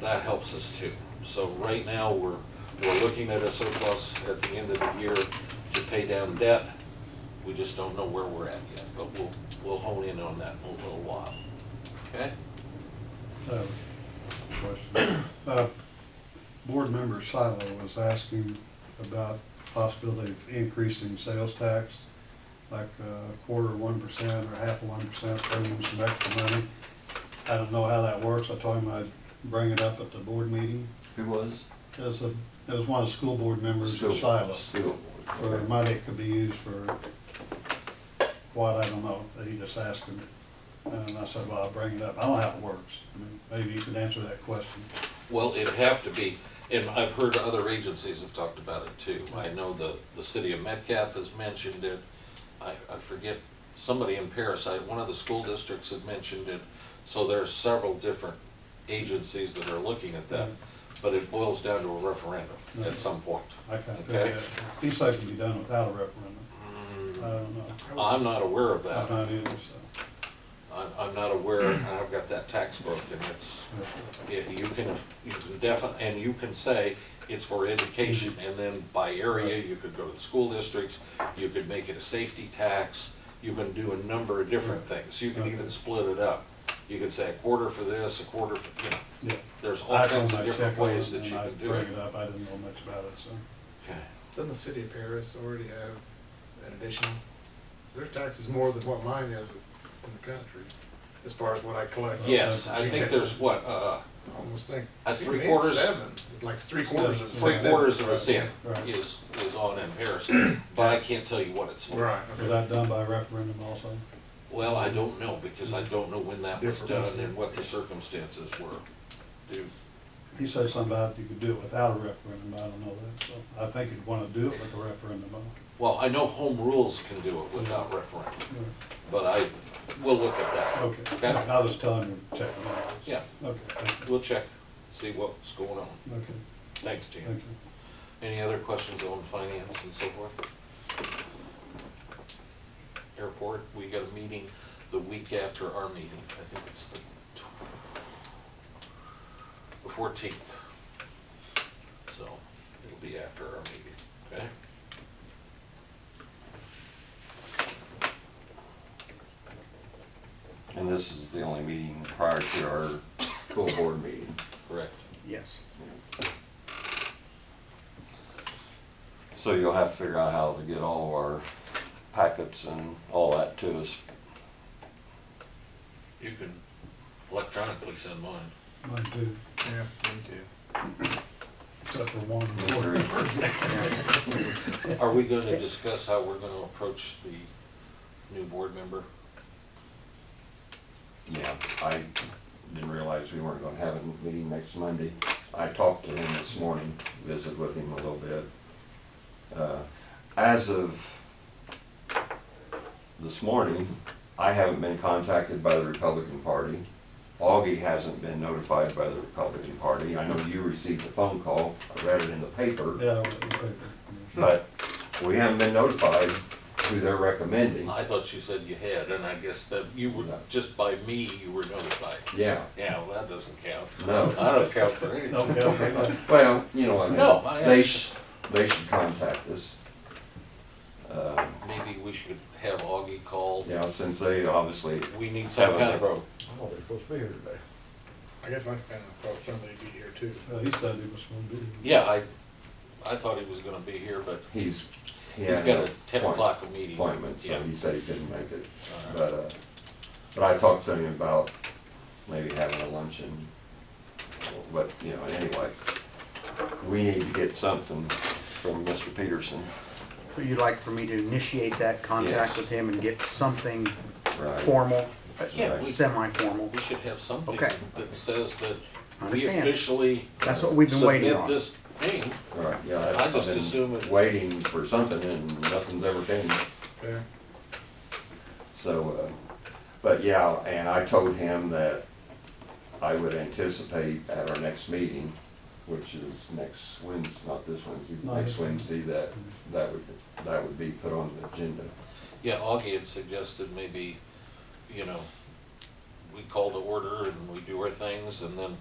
that helps us too. So right now, we're, we're looking at a surplus at the end of the year to pay down debt. We just don't know where we're at yet, but we'll, we'll hone in on that in a little while. Okay? Uh, question. Uh, Board member Silo was asking about possibility of increasing sales tax, like uh, a quarter, one percent, or half of one percent, bring him some extra money. I don't know how that works, I told him I'd bring it up at the board meeting. Who was? It was a, it was one of the school board members of School- Silo, School board. for okay. money it could be used for what, I don't know, he just asked him. And I said, well, I'll bring it up, I don't know how it works, I mean, maybe you could answer that question. Well, it'd have to be, and I've heard other agencies have talked about it too. I know the, the city of Metcalf has mentioned it. I, I forget, somebody in Paris, I, one of the school districts had mentioned it. So there are several different agencies that are looking at that, but it boils down to a referendum at some point. I can't figure Okay. that. He said it can be done without a referendum. I don't know. I'm not aware of I'm that. not either, so. I'm, I'm not aware, and I've got that tax book and it's, Yeah, you can, you can definitely, and you can say it's for education, Mm-hmm. and then by area, you could go to the school districts, you could make it a safety tax, you can do a number of different Mm-hmm. things, you can even split it up. You could say a quarter for this, a quarter for, you know, Yeah. there's I all don't kinds know, of different check on it, ways that you and I can do it. Bring it Uh, up, I didn't know much about it, so. Okay. Doesn't the city of Paris already have an additional, their tax is more than what mine is in the country, as far as what I collect. Yes, I think there's what, uh, I Almost think. A even three quarters- Seven, like three quarters of a three cent. quarters of a cent Right. is, is on in Paris, but I can't tell you what it's for. Right, Was okay. that done by referendum also? Well, I don't know, because I don't know when that was Different. done and what the circumstances were. Do, He said something about you could do it without a referendum, I don't know that, so. I think you'd wanna do it with a referendum, though. Well, I know home rules can do it without referendum, but I, we'll look at that. Okay, Okay. I was telling you, check it out. Yeah, Okay, thank you. we'll check, see what's going on. okay, Thanks, Jim. thank Any other questions on finance and so forth? Airport, we got a meeting the week after our meeting. I think it's the tw- the fourteenth. So it'll be after our meeting, okay? And this is the only meeting prior to our full board meeting. Correct. Yes. So you'll have to figure out how to get all of our packets and all that to us. You can electronically send mine. you. Mine too, Yeah, me too. except for one. Are we gonna discuss how we're gonna approach the new board member? Yeah, I didn't realize we weren't gonna have a meeting next Monday. I talked to him this morning, visited with him a little bit. Uh, As of this morning, I haven't been contacted by the Republican Party. Augie hasn't been notified by the Republican Party. I know you received a phone call, I read it in the paper, Yeah, with the paper. but we haven't been notified who they're recommending. I thought you said you had, and I guess that you were, No. just by me, you were notified. Yeah, Yeah, well, that doesn't count. no. I don't count for anything. Okay, okay. Well, you know, I mean. No, I They understand. should, they should contact us. Uh, Maybe we should have Augie call. You know, since they obviously, We need some kind of a, Oh, they're supposed to be here today. I guess I kinda thought somebody'd be here too. Uh, He said he was gonna do it. yeah, I, I thought he was gonna be here, but he's. he he's had got a an ten appoint- o'clock meeting. Appointment, so Yeah. he said he couldn't make it. All right. But, uh, but I talked to him about maybe having a luncheon. But, you know, anyway, we need to get something from Mr. Peterson. So you'd like for me to initiate that Yes. contact with him and get something Right. formal, Yeah, we- semi-formal? We should have something Okay. that says that we Understand. officially That's what we've been waiting submit on. this thing. Right, yeah. I've- I just I've been assume it- Waiting for something and nothing's ever came. Okay. So, uh, but yeah, and I told him that I would anticipate at our next meeting, which is next Wednesday, not this Wednesday, No, next this Wednesday, that, that would, that would be put on the agenda. Yeah, Augie had suggested maybe, you know, we call to order and we do our things and then